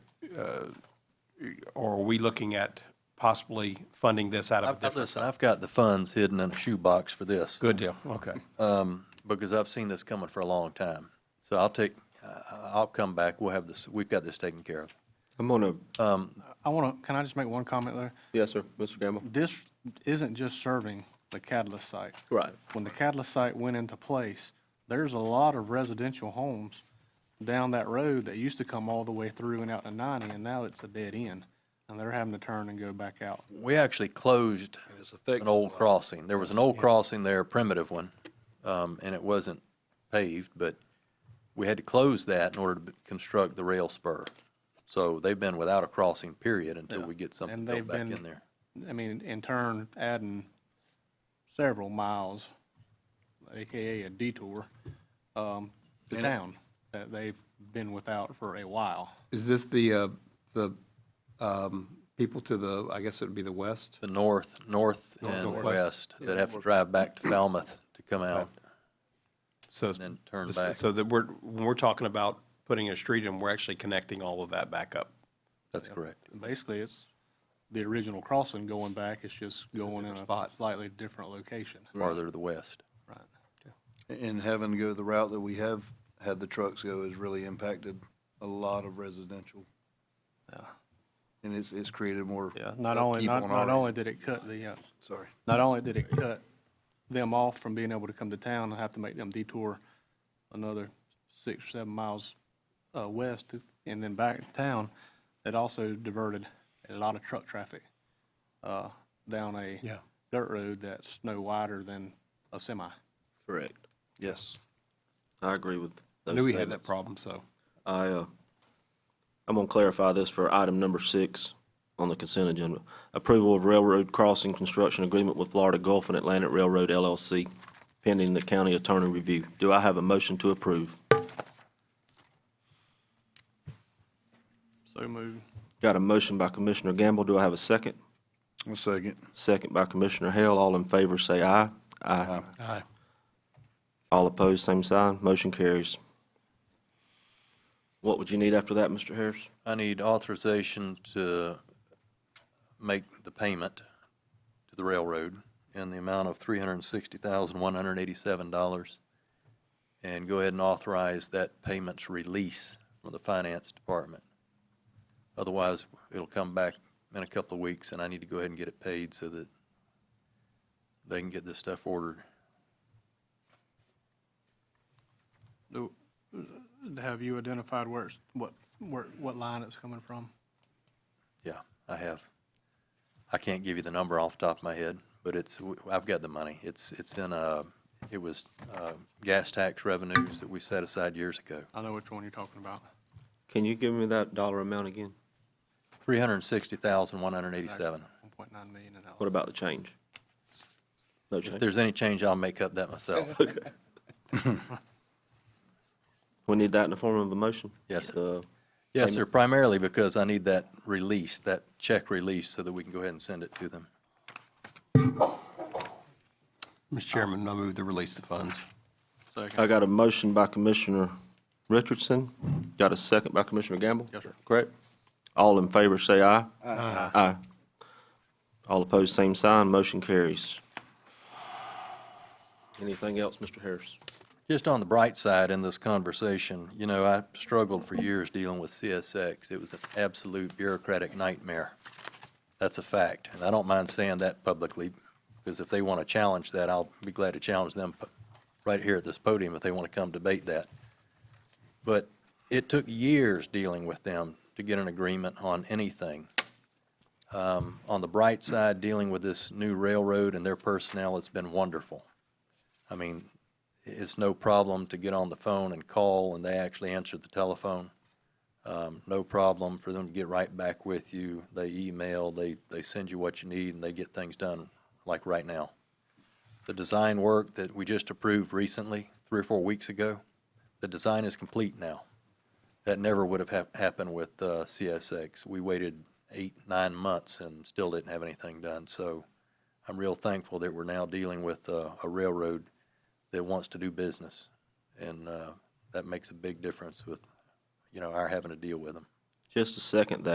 uh, or are we looking at possibly funding this out of a I've- I've- different? Listen, I've got the funds hidden in a shoebox for this. Good deal, okay. because I've seen this coming for a long time. So I'll take, uh, I'll come back, we'll have this, we've got this taken care of. I'm gonna, I want to, can I just make one comment there? yes, sir, Mr. Gamble. This isn't just serving the catalyst site. Right. When the catalyst site went into place, there's a lot of residential homes down that road that used to come all the way through and out to 90, and now it's a dead end, and they're having to turn and go back out. We actually closed an old crossing. There was an old crossing there, a primitive one, um, and it wasn't paved, but we had to close that in order to b- construct the rail spur. So they've been without a crossing period until we get something And built they've back been, in there. I mean, in turn, adding several miles, AKA a detour, um, to town that they've been without for a while. Is this the, uh, the um, people to the, I guess it would be the west? The north, north and west that have to drive back to Falmouth to come out. So it's- then turn this- back. So that we're, when we're talking about putting a street in, we're actually connecting all of that back up. That's correct. basically, it's the original crossing going back, it's just going in a slightly different location. Farther to the west. Right. And having to go the route that we have had the trucks go has really impacted a lot of residential. And it's, it's created more. Yeah, not only, upkeep not, on not our end. only did it cut the, uh, Sorry. not only did it cut them off from being able to come to town, I have to make them detour another six, or seven miles, uh, west to- and then back to town. It also diverted a lot of truck traffic, uh, down a Yeah. dirt road that's no wider than a semi. Correct. Yes. I agree with. I those knew we had that statements. problem, so. I, uh, I'm gonna clarify this for item number six on the consent agenda. Approval of railroad crossing construction agreement with Florida Gulf and Atlantic Railroad LLC pending the county attorney review. Do I have a motion to approve? So moved. Got a motion by Commissioner Gamble. Do I have a second? One second. Second by Commissioner Hale. All in favor, say aye. Aye. Aye. All opposed, same sign. Motion carries. What would you need after that, Mr. Harris? I need authorization to make the payment to the railroad in the amount of three hundred and sixty thousand, one hundred and eighty-seven dollars. And go ahead and authorize that payment's release from the finance department. Otherwise, it'll come back in a couple of weeks, and I need to go ahead and get it paid so that they can get this stuff ordered. Do, have you identified where it's, what, where, what line it's coming from? Yeah, I have. I can't give you the number off the top of my head, but it's, I've got the money. It's, it's in, uh, it was, uh, gas tax revenues that we set aside years ago. I know which one you're talking about. Can you give me that dollar amount again? Three hundred and sixty thousand, one hundred and eighty-seven. One point nine million in that. What about the change? No If change. there's any change, I'll make up that myself. We need that in the form of a motion? Yes, sir. Uh, Yes, sir, primarily because I need that release, that check release, so that we can go ahead and send it to them. Mr. Chairman, I move to release the funds. I got a motion by Commissioner Richardson. Got a second by Commissioner Gamble? Yes, sir. Correct? All in favor, say aye. Aye. Aye. All opposed, same sign. Motion carries. Anything else, Mr. Harris? Just on the bright side in this conversation, you know, I struggled for years dealing with CSX. It was an absolute bureaucratic nightmare. That's a fact, and I don't mind saying that publicly, because if they want to challenge that, I'll be glad to challenge them pu- right here at this podium if they want to come debate that. But it took years dealing with them to get an agreement on anything. Um, On the bright side, dealing with this new railroad and their personnel, it's been wonderful. I mean, it's no problem to get on the phone and call, and they actually answer the telephone. Um, No problem for them to get right back with you. They email, they, they send you what you need, and they get things done, like right now. The design work that we just approved recently, three or four weeks ago, the design is complete now. That never would have hap- happened with uh, CSX. We waited eight, nine months and still didn't have anything done. So I'm real thankful that we're now dealing with uh, a railroad that wants to do business. And uh, that makes a big difference with, you know, our having to deal with them. Just a second, that.